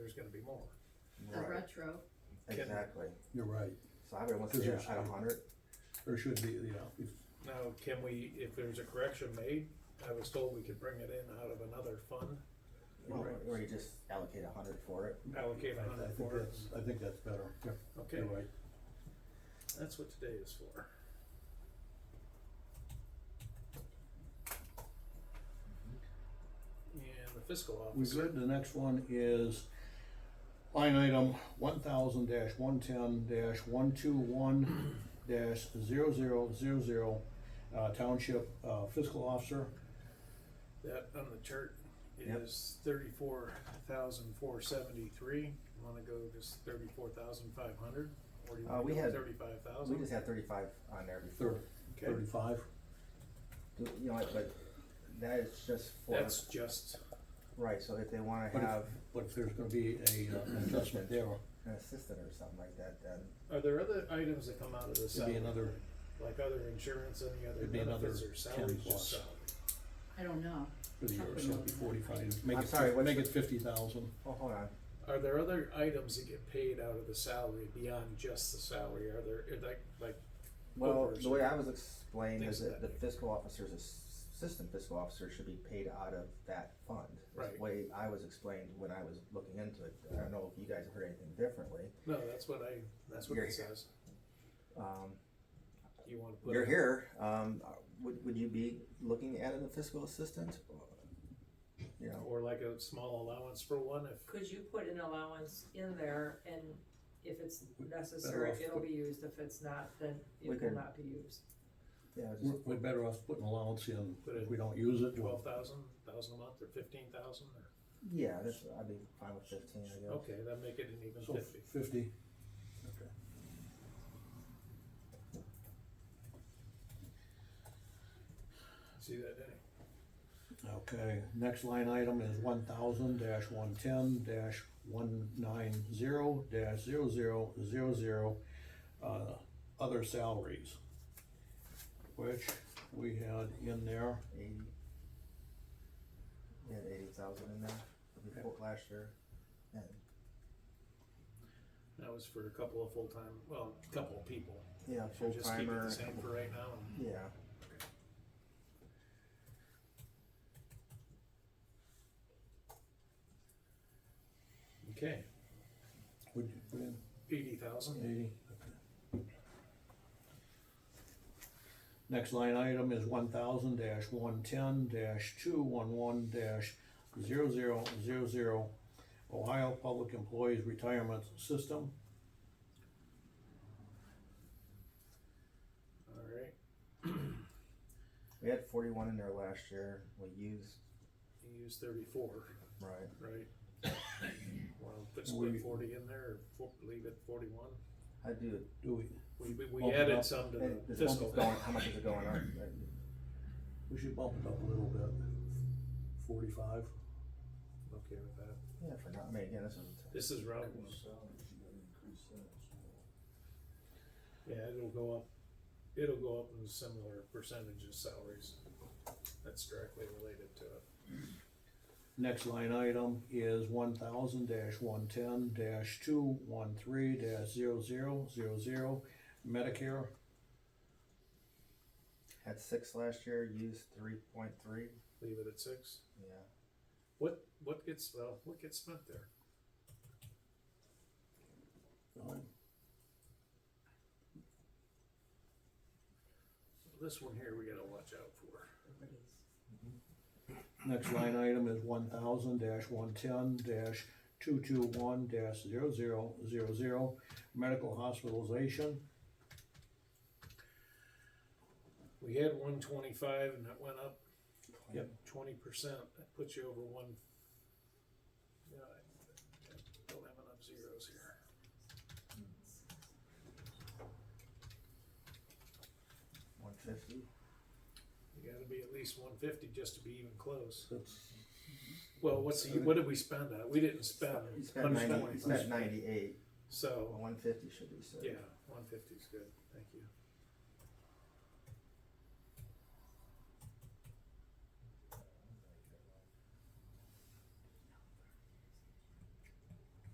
gonna be more. a Right. retro. Exactly. You're right. So I've been once 'Cause at there's- at a hundred. There should be, you know, if, Now, can we, if there's a correction made, I was told we could bring it in out of another fund, Or or you just allocate a hundred for it. allocate a I hundred think for it. that's, I think that's better. Yep, Okay, You're right. that's what today is for. And the fiscal We officer, good, the next one is line item one thousand dash one ten dash one two one dash zero zero zero zero, uh, township, uh, fiscal officer. that on the chart Yep. is thirty-four thousand four seventy-three. Wanna go just thirty-four thousand five hundred? Or do you Uh, wanna we go had- thirty-five We thousand? just had thirty-five on there before. Thirty, thirty-five. Do- You know, what, but that is just for, That's just, right, so if they wanna But if- have But if there's gonna be a, uh, an adjustment there, an assistant or something like that, then are there other items that come out of this? it'd be salary? another, Like other insurance, any other It'd be another benefits or 10 salaries, plus. just salary? I don't know. for the year, so it'd be forty-five, make I'm it, sorry, fif- what's make the- it fifty thousand. oh, hold on. Are there other items that get paid out of the salary beyond just the salary? Are there, are like, like, Well, Overs. the way I was explained is Things of that the that fiscal officer's ass- assistant fiscal officer should be paid out of that fund. That's Right. The way I was explained when I was looking into it, I don't know if you guys heard anything differently. no, that's what I, that's what You're it here. says. Um, You wanna put. you're it- here, um, would, would you be looking at a fiscal assistant? You know, Or like a small allowance for one if, Could you put an allowance in there and if it's Better necessary, off it'll put- be used, if it's not, then it We will can- not be used. yeah, We're, just, we're better off putting allowance in, Put it if we don't use it, we'll twelve thousand, thousand a month or fifteen thousand or, yeah, that's, I'd be fine with fifteen, I guess. okay, that make it an even So fifty. fifty. Okay. See that, Danny? Okay, next line item is one thousand dash one ten dash one nine zero dash zero zero zero zero, uh, other salaries. Which we had in there, Eighty. Yeah, eighty thousand in there, before last year, and, That was for a couple of full-time, well, a couple of people. yeah, Should full we Just keep it timer. the same for right now and Yeah. Okay, would you put in eighty thousand, eighty? Okay. Next line item is one thousand dash one ten dash two one one dash zero zero zero zero, Ohio Public Employees Retirement System. alright, We had forty-one in there last year, we used, you use thirty-four, right, right? Well, put split forty in there, or fo- leave it forty-one, I do, Do we, we, we- Bump we it up. added some to and the this month fiscal. is going, how much is it going up? Like, we should bump it up a little bit, forty-five. Okay with that. Yeah, for not, I mean, again, this is, This is round one, yeah, it'll go up, it'll go up in similar percentage of salaries, that's directly related to it. Next line item is one thousand one ten two one three 0 Medicare. had six last year, used three point three, Leave it at six, yeah. what, what gets, well, what gets spent there? Um, This one here, we gotta watch out for. Next line item is one thousand one ten two two one 0 medical hospitalization. We had one twenty-five and that went up Yep. twenty percent, that puts you over one. Yeah, I I don't have enough zeros here. One fifty, You gotta be at least one fifty just to be even close. That's- Well, what's the, what did we spend on? We didn't spend you spent hundred ninety, you spent twenty, ninety-eight, so, one fifty should be six. yeah, one fifty's good, thank you.